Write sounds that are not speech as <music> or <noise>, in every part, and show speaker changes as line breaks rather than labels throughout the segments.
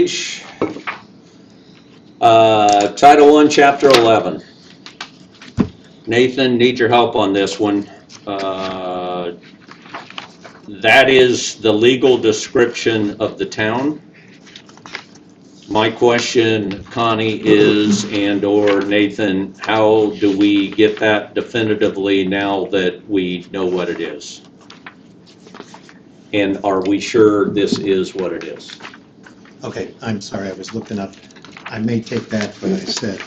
page, uh, Title I, Chapter 11. Nathan, need your help on this one. Uh, That is the legal description of the town. My question, Connie, is, and/or Nathan, how do we get that definitively now that we know what it is? And are we sure this is what it is?
Okay, I'm sorry, I was looking up. I may take back what I said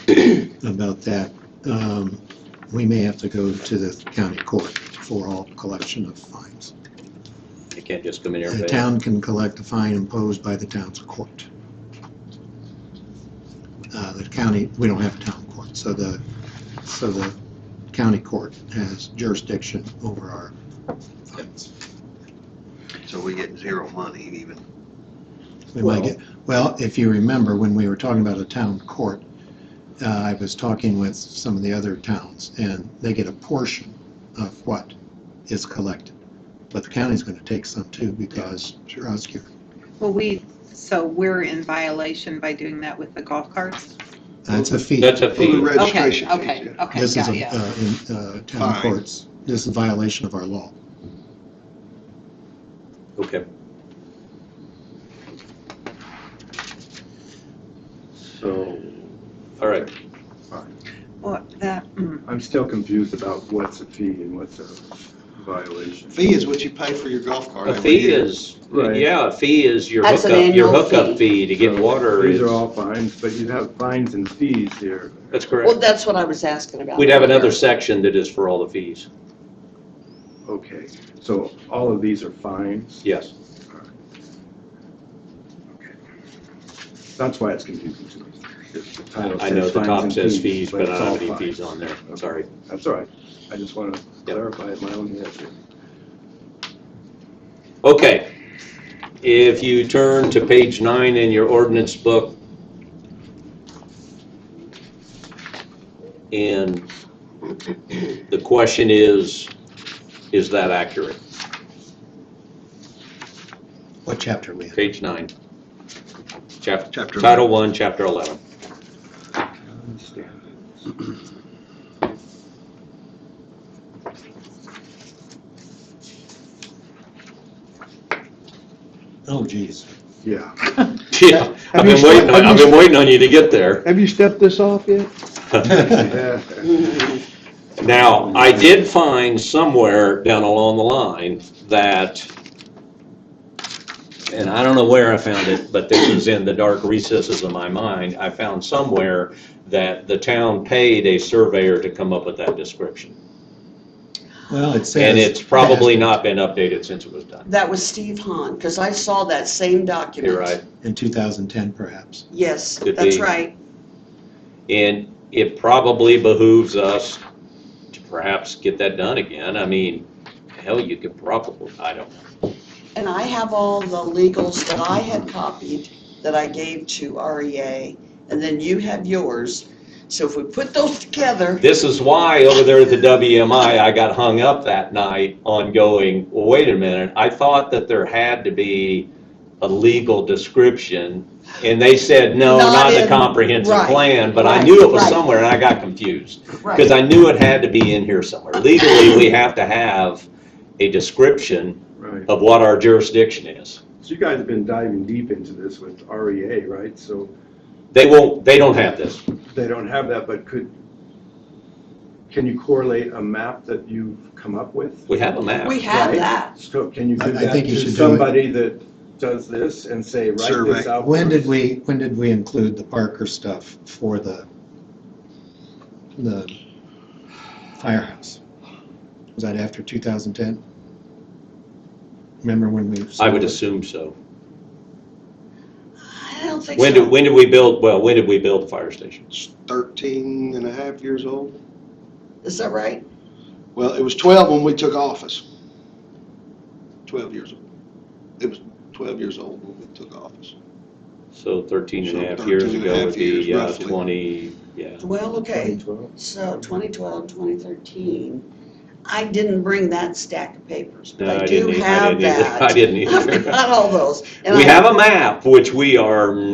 about that. Um, We may have to go to the county court for all collection of fines.
You can't just come in here and
The
pay.
town can collect the fine imposed by the town's court. Uh, The county, we don't have a town court, so the, so the county court has jurisdiction over our fines.
So we get zero money even.
We might get, well, if you remember, when we were talking about a town court, uh, I was talking with some of the other towns, and they get a portion of what is collected. But the county's gonna take some too, because Shurovsky,
Well, we, so we're in violation by doing that with the golf carts?
that's a fee.
That's a fee.
Registration fees,
Okay,
yeah.
okay, okay,
This is,
yeah,
a
yeah.
uh, in, uh, town
Fine.
courts, this is a violation of our law.
Okay. So, all right,
Well, that, mm,
I'm still confused about what's a fee and what's a violation.
Fee is what you pay for your golf cart.
a
every
fee
year.
is,
Right.
yeah, a fee is your
That's an
hookup, your
annual
hookup fee to get
So
water
These
is,
are all fines, but you have fines and fees here.
that's
Well,
correct.
that's what I was asking about.
We'd have
<laughs>
another section that is for all the fees,
Okay, so all of these are fines?
yes.
That's why it's confusing to me. The title
I know the
says fines
top
and
says fees, but I
it's
don't have
all
any fees
fines.
on there, sorry.
That's all right. I just want to clarify my own head here.
Okay, if you turn to page nine in your ordinance book, and the question is, is that accurate?
What chapter are we in?
Page nine. Chap-
Chapter
Title one, chapter
<laughs>
11.
Oh <laughs> geez.
Yeah. <laughs>
Yeah, I've been
you-
waiting, on-
have
I've
you-
been waiting on you to get there.
Have you stepped this off yet?
Now,
Mm-hmm.
I did find somewhere down along the line that, and I don't know where I found it, but this is in the dark recesses of my mind, I found somewhere that the town paid a surveyor to come up with that description.
Well, it says.
And it's probably not been updated since it was done.
That was Steve Hahn, because I saw that same document.
You're right.
In 2010 perhaps.
Yes,
Could
that's
be.
right.
And it probably behooves us to perhaps get that done again. I mean, hell, you could probably, I don't know.
And I have all the legals that I had copied that I gave to REA, and then you have yours. So if we put those together,
This is why over there at the WMI, I got hung up that night on going, well, wait a minute, I thought that there had to be a legal description. And they said, no,
Not
not the
in-
comprehensive
right,
plan, but I
right,
knew it was
right.
somewhere and I got confused. Because
right,
I knew it had to be in here somewhere. Legally, we have to have a description
Right.
of what our jurisdiction is.
So you guys have been diving deep into this with REA, right? So
They won't, they don't have this.
they don't have that, but could, can you correlate a map that you've come up with?
We have a map.
we have
Right.
that.
So can you
I-
do
I
that
think you
to
should do it.
somebody that does this and say, write this
Survey.
out?
When did we, when did we include the Parker stuff for the, the firehouse? Was that after 2010? Remember when we?
I would assume so.
I don't think so.
When did, when did we build, well, when did we build the fire station?
Thirteen and a half years old.
Is that right?
Well, it was twelve when we took office. Twelve years old. It was twelve years old when we took office.
So 13 and a
So
half years
13 and a
ago
half
would
years,
be uh,
roughly.
20, yeah.
Well, okay,
2012?
so 2012, 2013. I didn't bring that stack of papers, but
No,
I
didn't
do
e- <laughs> I
have
didn't either.
<laughs> that.
I didn't
I've
either.
got all those. and
We
I-
have a map, which we are